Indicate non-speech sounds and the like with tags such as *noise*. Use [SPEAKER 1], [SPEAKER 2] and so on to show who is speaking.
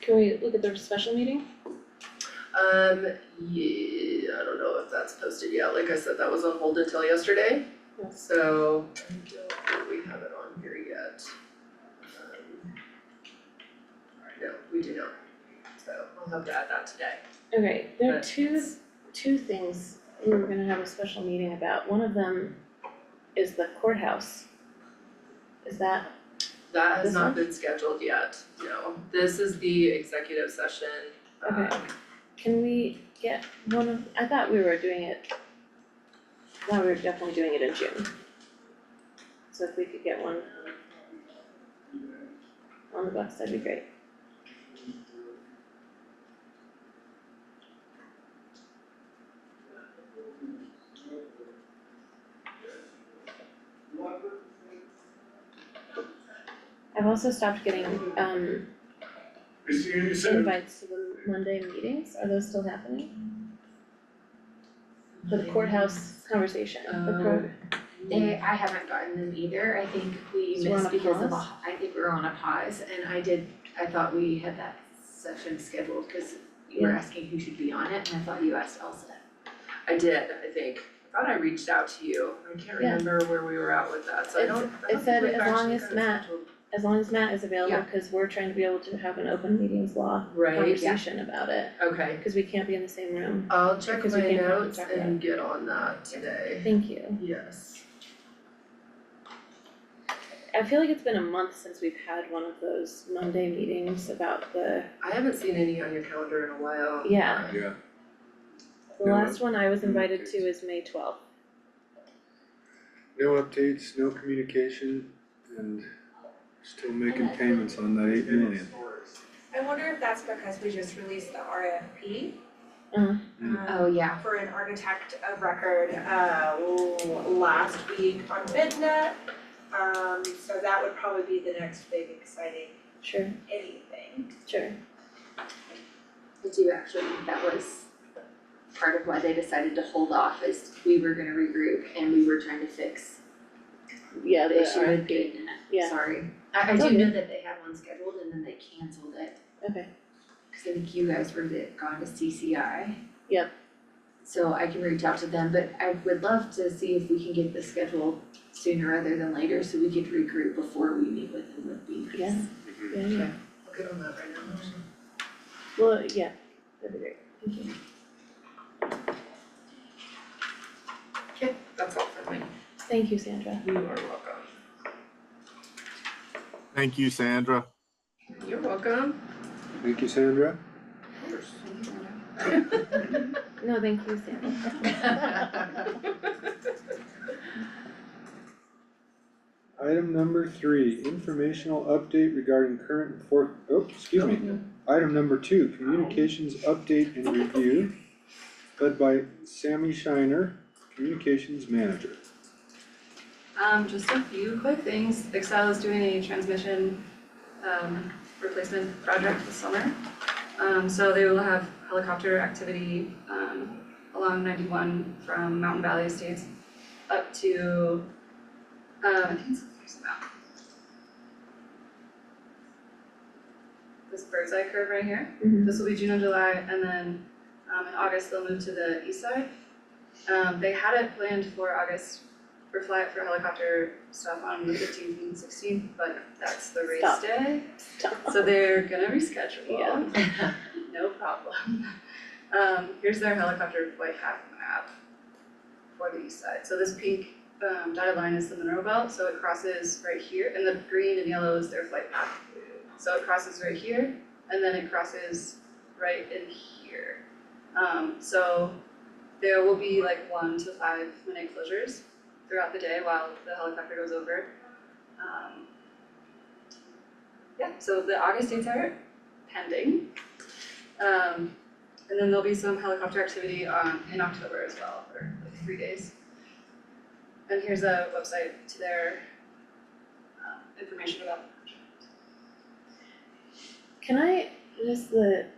[SPEAKER 1] Can we look at their special meeting?
[SPEAKER 2] Um, yeah, I don't know if that's posted yet, like I said, that was on hold until yesterday,
[SPEAKER 1] Yes.
[SPEAKER 2] so I don't think we have it on here yet. Um, No, we do not, so I'll have to add that today.
[SPEAKER 1] Okay, there are
[SPEAKER 2] But-
[SPEAKER 1] two, two things we were gonna have a special meeting about. One of them is the courthouse. Is that,
[SPEAKER 2] That has
[SPEAKER 1] This
[SPEAKER 2] not
[SPEAKER 1] one?
[SPEAKER 2] been scheduled yet, no, this is the executive session, um,
[SPEAKER 1] Okay. can we get one of, I thought we were doing it, I thought we were definitely doing it in June. So if we could get one on the bus, that'd be great. I've also stopped getting um
[SPEAKER 3] Is he, is it-
[SPEAKER 1] invites to the Monday meetings, are those still happening? The courthouse conversation, the court,
[SPEAKER 4] They, I haven't gotten them either, I think we
[SPEAKER 1] Mm. So we're on
[SPEAKER 4] missed
[SPEAKER 1] a
[SPEAKER 4] because of a,
[SPEAKER 1] pause?
[SPEAKER 4] I think we're on a pause, and I did, I thought we had that session scheduled, cause you were
[SPEAKER 1] Yeah.
[SPEAKER 4] asking who should be on it, and I thought you asked Elsa.
[SPEAKER 2] I did, I think, I thought I reached out to you, I can't
[SPEAKER 1] Yeah.
[SPEAKER 2] remember where we were at with that, so I
[SPEAKER 1] It's-
[SPEAKER 2] don't, I
[SPEAKER 1] it
[SPEAKER 2] don't
[SPEAKER 1] said
[SPEAKER 2] think we've
[SPEAKER 1] as long
[SPEAKER 2] actually
[SPEAKER 1] as
[SPEAKER 2] got it
[SPEAKER 1] Matt-
[SPEAKER 2] scheduled.
[SPEAKER 1] as long as Matt is available,
[SPEAKER 4] Yeah.
[SPEAKER 1] cause we're trying to be able to have an open meetings law
[SPEAKER 2] Right,
[SPEAKER 1] conversation about it,
[SPEAKER 2] okay,
[SPEAKER 1] cause we can't be in the same room,
[SPEAKER 2] I'll check
[SPEAKER 1] Because we
[SPEAKER 2] my
[SPEAKER 1] can't have it
[SPEAKER 2] notes
[SPEAKER 1] separate.
[SPEAKER 2] and get on that today,
[SPEAKER 1] thank you.
[SPEAKER 2] yes.
[SPEAKER 1] I feel like it's been a month since we've had one of those Monday meetings about the,
[SPEAKER 2] I haven't seen any on your calendar in a while.
[SPEAKER 1] Yeah.
[SPEAKER 3] yeah,
[SPEAKER 1] the
[SPEAKER 3] Yeah,
[SPEAKER 1] last one I was invited to is May twelfth.
[SPEAKER 5] No updates, no communication, and still making
[SPEAKER 4] Okay.
[SPEAKER 5] payments on that eight million.
[SPEAKER 6] I wonder if that's because we just released the RFP.
[SPEAKER 1] Uh-huh.
[SPEAKER 5] Mm.
[SPEAKER 6] um,
[SPEAKER 4] Oh, yeah,
[SPEAKER 6] For an architect of record, uh, l- last week on Midnet. Um, so that would probably be the next big exciting
[SPEAKER 1] Sure,
[SPEAKER 6] anything.
[SPEAKER 1] sure,
[SPEAKER 4] I do actually, think that was part of why they decided to hold off, is we were gonna regroup and we were trying to fix
[SPEAKER 1] yeah,
[SPEAKER 4] the
[SPEAKER 1] the
[SPEAKER 4] issue with
[SPEAKER 1] RFP,
[SPEAKER 4] getting that,
[SPEAKER 1] yeah.
[SPEAKER 4] sorry. I I
[SPEAKER 1] It's
[SPEAKER 4] do
[SPEAKER 1] okay.
[SPEAKER 4] know that they had one scheduled and then they canceled it.
[SPEAKER 1] okay,
[SPEAKER 4] Cause I think you guys were the, gone to CCI.
[SPEAKER 1] Yep.
[SPEAKER 4] So I can reach out to them, but I would love to see if we can get the schedule sooner rather than later, so we could regroup before we meet with them would be nice.
[SPEAKER 1] Yeah. yeah, yeah,
[SPEAKER 2] I'll get on that right now.
[SPEAKER 1] well, yeah, that'd be great, thank you.
[SPEAKER 2] Okay, that's all for me.
[SPEAKER 1] Thank you, Sandra.
[SPEAKER 2] You are welcome.
[SPEAKER 7] Thank you, Sandra.
[SPEAKER 2] You're welcome.
[SPEAKER 5] Thank you, Sandra.
[SPEAKER 2] Of course.
[SPEAKER 1] No, thank you, Sandra.
[SPEAKER 8] *laughs*
[SPEAKER 5] Item number three, informational update regarding current and for, oh, excuse me. Item number two, communications update and review, led by Sammy Shiner, communications manager.
[SPEAKER 8] *laughs* Um, just a few quick things. Excel is doing a transmission um replacement project this summer. Um, so they will have helicopter activity um along ninety-one from Mountain Valley Estates up to um, I think it's, there's about this bird's eye curve right here.
[SPEAKER 1] Mhm.
[SPEAKER 8] This will be June and July, and then um in August they'll move to the east side. Um, they had it planned for August for fly for helicopter stuff on the fifteenth and sixteenth, but that's the race
[SPEAKER 1] Stop.
[SPEAKER 8] day.
[SPEAKER 1] Stop.
[SPEAKER 8] *laughs* So they're gonna reschedule.
[SPEAKER 2] Yeah.
[SPEAKER 8] *laughs* No problem. Um, here's their helicopter flight path map for the east side. So this pink um dotted line is the Monroe Belt, so it crosses right here, and the green and yellow is their flight path. So it crosses right here, and then it crosses right in here. Um, so there will be like one to five minute closures throughout the day while the helicopter goes over. Um, yeah, so the August dates are pending. Um, and then there'll be some helicopter activity on, in October as well, for like three days. And here's a website to their, um, information about the project.
[SPEAKER 1] Can I, just the